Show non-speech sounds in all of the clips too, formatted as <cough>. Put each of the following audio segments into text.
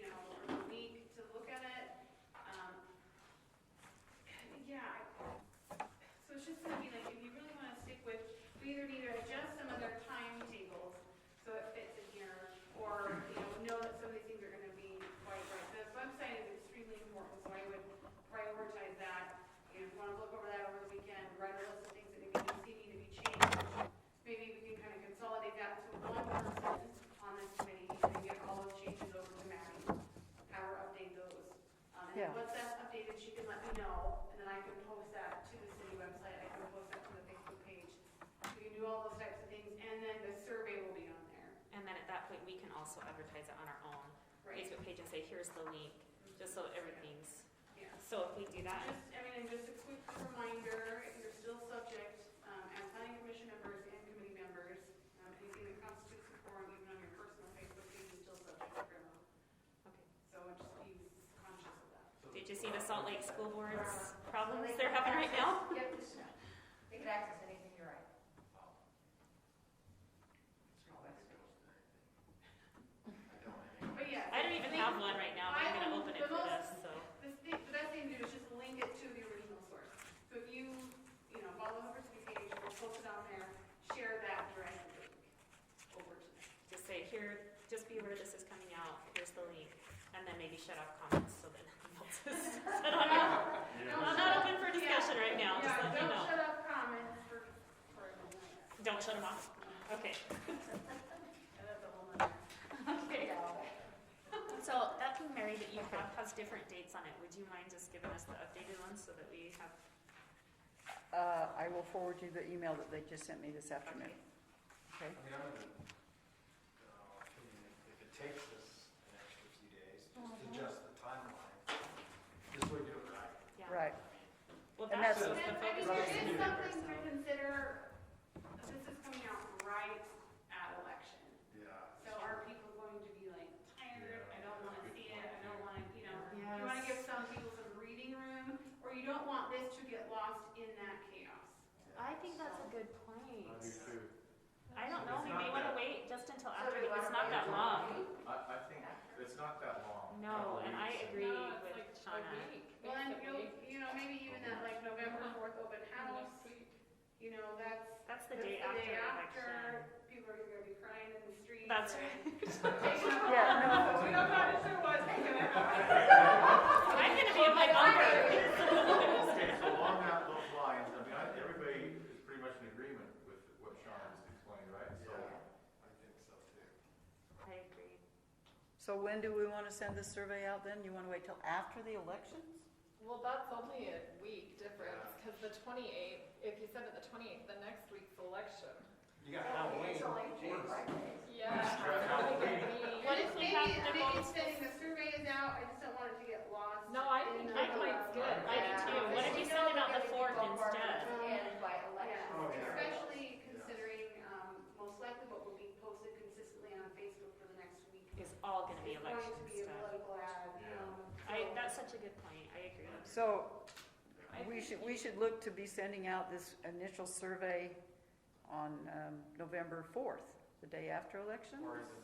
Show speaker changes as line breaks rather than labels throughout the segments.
Um, Um,
say, here's the link, just so everything's,
Yeah.
so if we do that,
Just, I mean, and just a quick reminder, if you're still subject, um, as planning commission members and committee members, um, anything that constitutes a forum, even on your personal Facebook page, is still subject to criminal.
okay.
So just be conscious of that.
Did you see the Salt Lake School Board's problems they're having right now?
Yep, it's- they could access anything, you're right.
But yeah.
I don't even have one right now, but I'm gonna open it for this, so.
The thing, the best thing to do is just link it to the original source. So if you, you know, follow the person page, or post it on there, share that direct link over to them.
Just say, here, just be aware this is coming out, here's the link, and then maybe shut off comments, so then they'll just, <laughs> I don't know. I'm not open for discussion right now, just
Yeah,
let me know.
Don't shut up comments for, for a moment.
Don't shut them off, okay.
And that's a whole nother.
Okay.
Yeah.
So that thing, Mary, that you have has different dates on it, would you mind just giving us the updated ones so that we have,
Uh, I will forward you the email that they just sent me this afternoon.
okay?
I
Okay?
mean, I'm in the, uh, opinion, if it takes us an extra few days,
Uh-huh.
just adjust the timeline, this way do it right.
Yeah.
Right.
Well,
And
that's
that's-
just
And
the
then, I mean,
focus.
Right.
there
Yeah.
is something to consider, this is coming out right at election.
Yeah.
So are people going to be like tired, I don't wanna see it, I don't wanna, you know, you wanna
Yes.
give some people some breathing room, or you don't want this to get lost in that chaos.
I think that's a good
I
point.
do too.
I don't know, we
It's
may
not
wanna
that-
wait just until
So
after,
we
it's
wanna
not
wait
that
until
long.
I, I think it's not that long.
No,
Couple
and I
weeks.
agree
No, it's
with
like a
Shauna.
week,
Well, and
basically,
you'll, you know, maybe even that like November fourth open house,
next week.
you know, that's,
That's the
that's
day after election.
after, people are gonna be crying in the streets.
That's
<laughs>
and- <laughs>
right.
Yeah,
We don't know for sure what's gonna happen. <laughs>
I'm gonna be in my bunker.
Okay, so along that, those lines, I mean, I, everybody is pretty much in agreement with what Sean is explaining, right? So,
Yeah, I think so too.
I agree.
So when do we want to send this survey out then? You want to wait till after the elections?
Well, that's only a week difference, because the twenty-eighth, if you send it the twenty-eighth, the next week's election.
You got Halloween.
It's only June,
Worse.
right?
Yeah.
Stress out
I think
waiting.
it'd be-
What if we have
Maybe-
them
Maybe
all-
it's sending the survey is out, I just don't want it to get lost.
No, I
in the-
think my point's good.
I do
Yeah.
too. What if you send it out the fourth instead?
And by election.
Oh, yeah.
Especially considering, um, most likely what will be posted consistently on Facebook for the next week.
It's all gonna be
It's going
election
to be a
stuff.
political ad,
Yeah.
um,
I,
so-
that's such a good point, I agree.
So
I
we
think
should, we should look to be sending out this initial survey on um, November 4th, the day after election
Or is it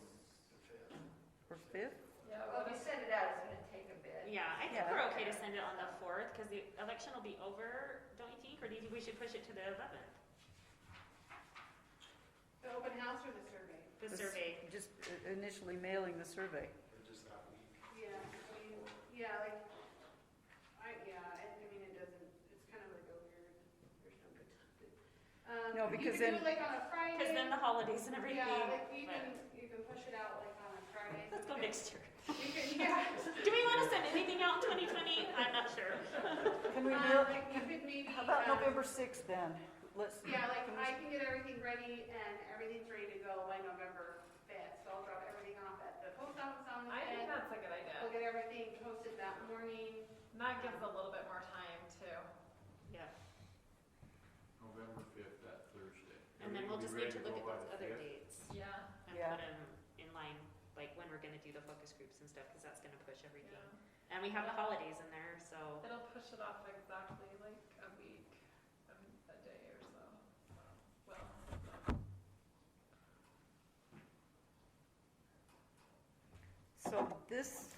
the fifth?
or 5th?
Yeah,
Well, if you
but it's-
send it out, it's gonna take a bit.
Yeah, I think
Yeah.
we're okay to send it on the fourth, cause the election will be over, don't you think? Or do you think we should push it to the eleventh?
The open house or the survey?
The survey,
Just uh, initially mailing the survey.
Or just that week?
Yeah, I mean, yeah, like, I, yeah, I, I mean, it doesn't, it's kind of like a weird, there's no good time.
No, because
You could do it like
then-
on a Friday.
cause then the holidays and everything.
Yeah, like you
but-
can, you can push it out like on a Friday.
Let's go next year.
You can, yeah.
<laughs>
um,
Do we wanna send anything out in twenty twenty? I'm not sure.
Can we mail,
Um, Like you could maybe.
how about
um,
November 6th then? Let's,
Yeah, like I can get everything ready and everything's ready to go by November fifth, so I'll drop everything off at the post office on the
I think
fifth.
that's a good
We'll
idea.
get everything posted that morning.
And That gives a little bit more time too.
Yeah,
November fifth, that Thursday.
and then
Are we-
we'll
we
just
ready
need to
go
look at
by
those
the
other
5th?
dates
Yeah.
and
Yeah.
put them in line, like when we're gonna do the focus groups and stuff, cause that's gonna push everything.
yeah.
And we have the holidays in there, so.
It'll push it off exactly like a week, um, a day or so. Well,
so this